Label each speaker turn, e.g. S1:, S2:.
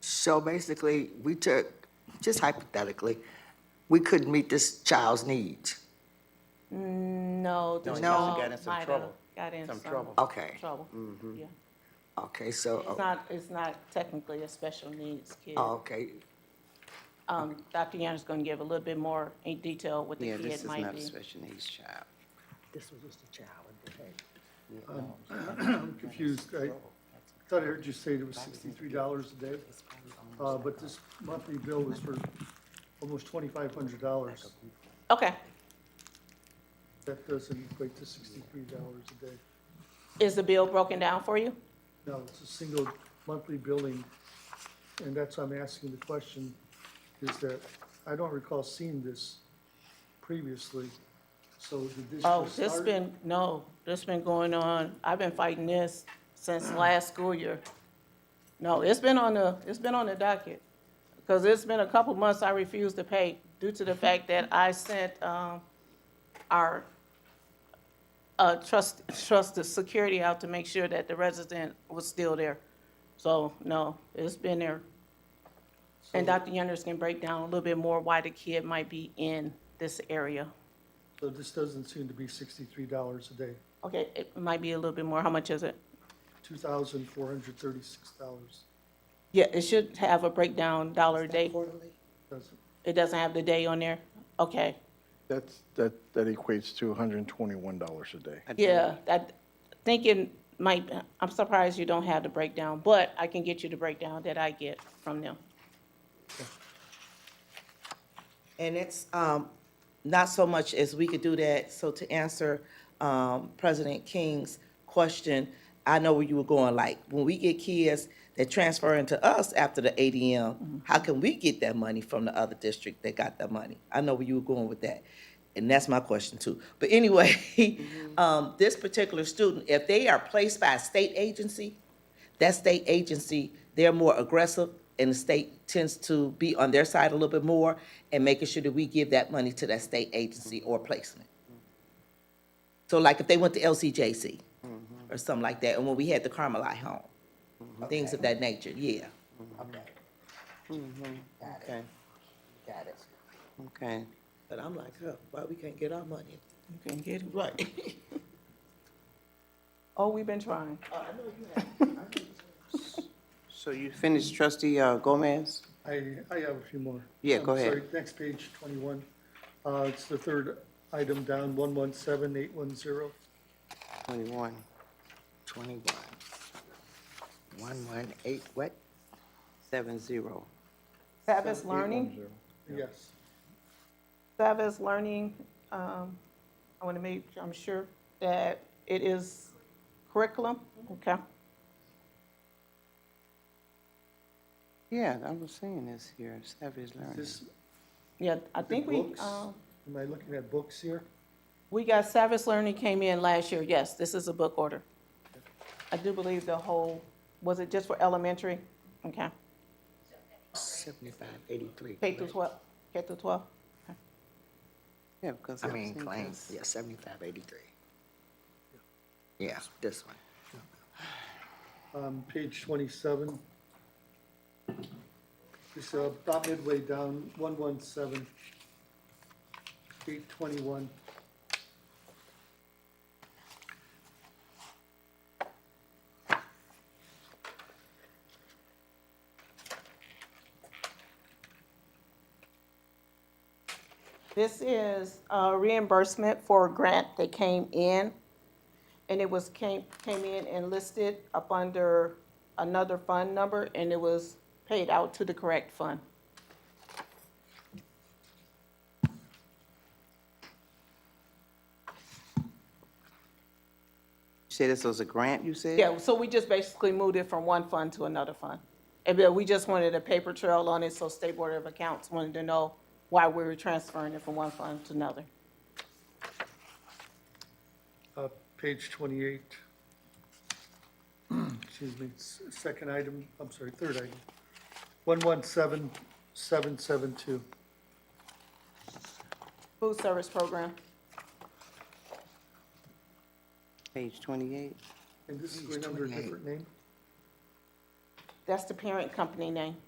S1: So basically, we took, just hypothetically, we couldn't meet this child's needs.
S2: No, the
S3: No, he
S2: child
S3: got in some
S2: might have
S3: trouble.
S2: Got in
S3: Some
S2: some
S3: trouble. Mm-hmm.
S1: Okay,
S2: trouble, yeah.
S1: okay, so,
S2: It's not, it's not technically a special needs kid.
S1: oh, okay,
S2: Um, Dr. Young is gonna give a little bit more in detail what the
S3: Yeah, this
S2: kid
S3: is
S2: might
S3: not a
S2: be.
S3: special needs child.
S4: This was just a child that had
S5: I'm confused. I thought I heard you say it was sixty-three dollars a day, uh, but this monthly bill was for almost twenty-five hundred dollars.
S2: Okay,
S5: That doesn't equate to sixty-three dollars a day.
S2: is the bill broken down for you?
S5: No, it's a single monthly billing, and that's why I'm asking the question, is that I don't recall seeing this previously. So did this
S2: Oh,
S5: just
S2: this
S5: start?
S2: been, no, this been going on, I've been fighting this since last school year. No, it's been on the, it's been on the docket, because it's been a couple months I refused to pay due to the fact that I sent, um, our, uh, trust, trusted security out to make sure that the resident was still there. So, no, it's been there. And Dr. Yenders can break down a little bit more why the kid might be in this area.
S5: So this doesn't seem to be sixty-three dollars a day,
S2: Okay, it might be a little bit more. How much is it?
S5: two thousand four hundred thirty-six dollars.
S2: Yeah, it should have a breakdown dollar a day.
S4: quarterly.
S5: Doesn't,
S2: It doesn't have the day on there? Okay,
S6: That's, that, that equates to $121 a day.
S3: I do.
S2: yeah, that, thinking might, I'm surprised you don't have the breakdown, but I can get you the breakdown that I get from them.
S4: And it's, um, not so much as we could do that, so to answer, um, President King's question, I know where you were going, like, when we get kids that transfer into us after the ADM, how can we get that money from the other district that got that money? I know where you were going with that, and that's my question too. But anyway,
S3: Mm-hmm.
S4: um, this particular student, if they are placed by a state agency, that state agency, they're more aggressive, and the state tends to be on their side a little bit more, and making sure that we give that money to that state agency or placement. So like if they went to LCJC or something like that, and when we had the Carmelite home, things of that nature, yeah.
S3: Mm-hmm. Okay. Got it. Okay.
S4: But I'm like, huh, why we can't get our money?
S2: You can get it.
S4: Right.
S2: Oh, we've been trying.
S3: So you finished trustee uh, Gomez?
S5: I, I have a few more.
S3: Yeah, go
S5: I'm
S3: ahead.
S5: sorry, Next page, 21. Uh, It's the third item down, 117810.
S3: Twenty-one.
S1: twenty-one. One, one, eight, what?
S3: Seven zero.
S2: Savas Learning,
S5: Yes.
S2: Savas Learning, um, I want to make, I'm sure that it is curriculum, okay?
S3: Yeah, I was seeing this here, Savage Learning.
S5: This,
S2: Yeah, I think we,
S5: books?
S2: um,
S5: am I looking at books here?
S2: We got Savage Learning came in last year, yes, this is a book order. I do believe the whole, was it just for elementary? Okay,
S1: Seventy-five, eighty-three.
S2: K through twelve, K through twelve?
S3: Yeah, because.
S1: I
S3: I've
S1: mean,
S3: seen
S1: claims,
S3: this.
S1: yeah, seventy-five, eighty-three. Yeah, this one.
S5: Um, Page 27. It's uh, about midway down, 117, 821.
S2: This is uh, reimbursement for a grant that came in, and it was, came, came in and listed up under another fund number, and it was paid out to the correct fund.
S3: You said this was a grant, you said?
S2: Yeah, so we just basically moved it from one fund to another fund. And then we just wanted a paper trail on it, so State Board of Accounts wanted to know why we were transferring it from one fund to another.
S5: Uh, Page 28. Excuse me, s- second item, I'm sorry, third item. 117772.
S2: Food service program,
S3: Page twenty-eight.
S5: And this is going under a different name?
S2: that's the parent company name.